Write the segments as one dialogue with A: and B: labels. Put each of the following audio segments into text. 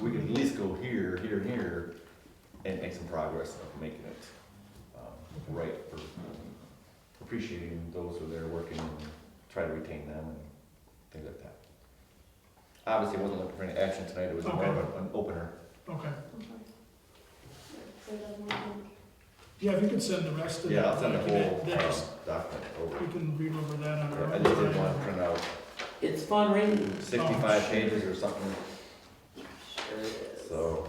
A: go here, here, and here, and make some progress of making it, um, right for appreciating those who are there working and try to retain them and things like that. Obviously, I wasn't looking for any action tonight, it was more of an- an opener.
B: Okay,
C: So it doesn't matter.
B: yeah, if you could send the rest of the
A: Yeah, I'll send the whole,
B: document,
A: um,
B: that's,
A: document over.
B: we can read over that on our.
A: I just didn't want to print out
D: It's fun reading.
A: sixty-five
B: Oh,
A: pages or something,
D: Sure is.
A: so,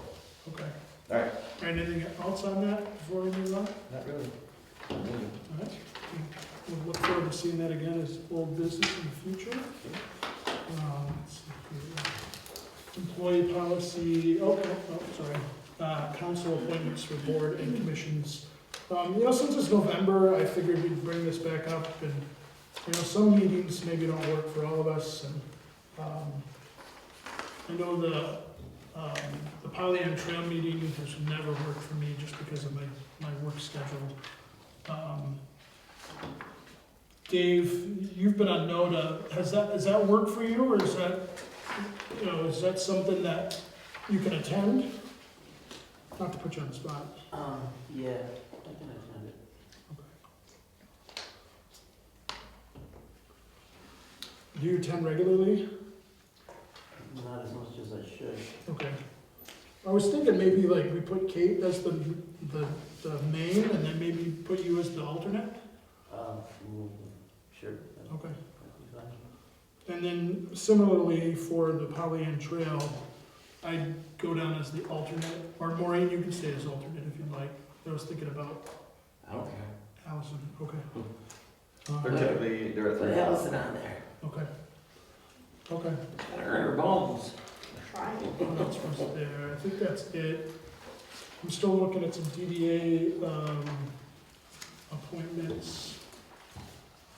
B: Okay.
A: Alright.
B: Anything else on that before we move on?
A: not really.
B: All right. We'll look forward to seeing that again as old business in the future. Um, let's see here. Employee policy, oh, oh, oh, sorry, uh, council appointments for board and commissions. Um, you know, since it's November, I figured we'd bring this back up and, you know, some meetings maybe don't work for all of us and, um, I know the, um, the Poly and Trail meeting has never worked for me just because of my, my work schedule. Um, Dave, you've been on NODA, has that, has that worked for you, or is that, you know, is that something that you can attend? Not to put you on the spot.
D: Um, yeah, I can attend it.
B: Do you attend regularly?
D: Not as much as I should.
B: Okay. I was thinking maybe like we put Kate as the, the, the main, and then maybe put you as the alternate?
D: Um, mm, sure. that'd
B: Okay.
D: be fine.
B: And then similarly for the Pollyant Trail, I'd go down as the alternate, or Maureen, you can stay as alternate if you'd like. I was thinking about
D: I don't care.
B: Allison, okay.
A: They're
B: Uh,
A: typically, they're at
D: Put
A: the,
D: Allison on there.
B: Okay. Okay,
D: Gotta earn her bones.
C: Try it.
B: what else was there? I think that's it. I'm still looking at some DDA, um, appointments.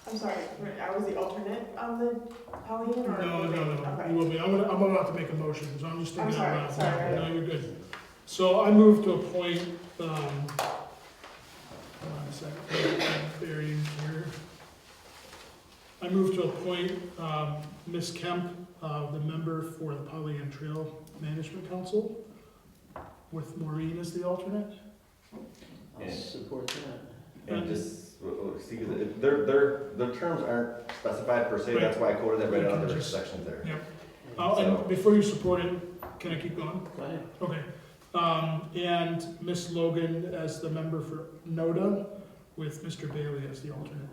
C: I'm sorry, wait, I was the alternate on the Polly or?
B: No, no, no, you
C: Okay.
B: will be, I'm gonna, I'm about to make a motion, so I'm just
C: I'm
B: thinking out loud.
C: sorry, sorry.
B: No, you're good. So I move to appoint, um, hold on a second, buried here. I move to appoint, um, Ms. Kemp, uh, the member for the Polly and Trail Management Council, with Maureen as the alternate.
D: I'll
A: Yeah.
D: support that.
A: and just, well, well, see, 'cause it- their, their, their terms aren't specified per se, that's why I quoted that right out of their sections there.
B: Oh, and before you support it, can I keep going?
D: Go ahead.
B: Okay, um, and Ms. Logan as the member for NODA with Mr. Bailey as the alternate.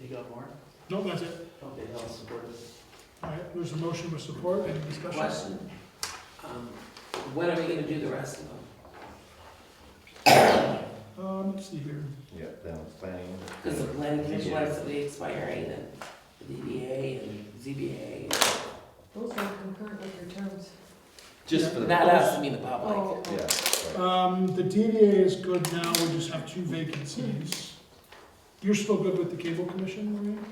D: You got more?
B: No, that's it.
D: Okay, I'll support it.
B: All right, there's a motion with support, any discussion?
D: Question. Um, when are we gonna do the rest of them?
B: Um, let's see here.
A: Yeah, then it's planning.
D: Because the planning commission likes to be expiring and the DDA and ZBA.
E: Those are concurrent with your terms.
A: Just for the.
D: Not us, I mean the public.
E: Oh,
A: Yeah, right.
B: Um, the DDA is good now, we just have two vacancies. You're still good with the cable commission, Maureen?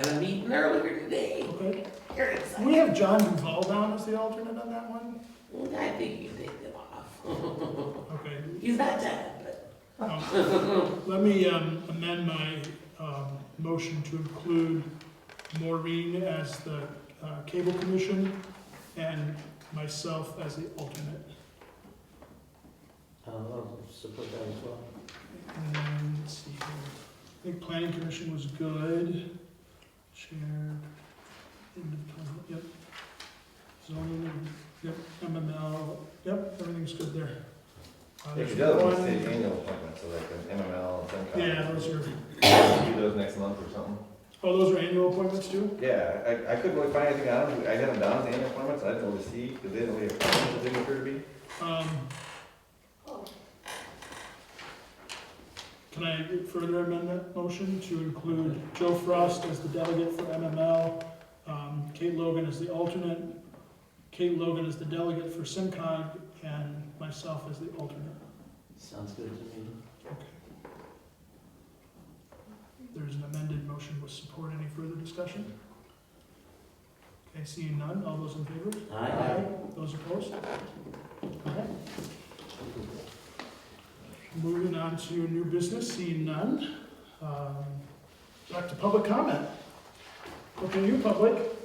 D: At a meeting earlier today.
B: Okay.
D: You're excited.
B: We have John Duval down as the alternate on that one?
D: I think you can take them off.
B: Okay,
D: He's not dead, but.
B: Um, Let me um, amend my um, motion to include Maureen as the uh, cable commission and myself as the alternate.
D: I'll support that as well.
B: And then, let's see here, I think planning commission was good. Chair. independent, Yep. Zoning, yep, MML, yep, everything's good there. Uh,
A: If
B: there's
A: you do, it's
B: one-
A: the annual appointment, so like an MML, FinCom.
B: Yeah, those are,
A: Do those next month or something.
B: oh, those are annual appointments too?
A: Yeah, I, I couldn't really find anything on them, I got them down as annual appointments, I didn't really see, because they didn't really appoint, them, they didn't appear to be.
B: Um,
C: Oh,
B: Can I further amend that motion to include Joe Frost as the delegate for MML, um, Kate Logan as the alternate, Kate Logan as the delegate for SimCog, and myself as the alternate?
D: Sounds good to me.
B: There's an amended motion with support. Any further discussion? Okay, seeing none. All those in favor?
D: Aye.
B: Those opposed? Okay. Moving on to new business, seeing none. Um, Back to public comment. Okay, you public,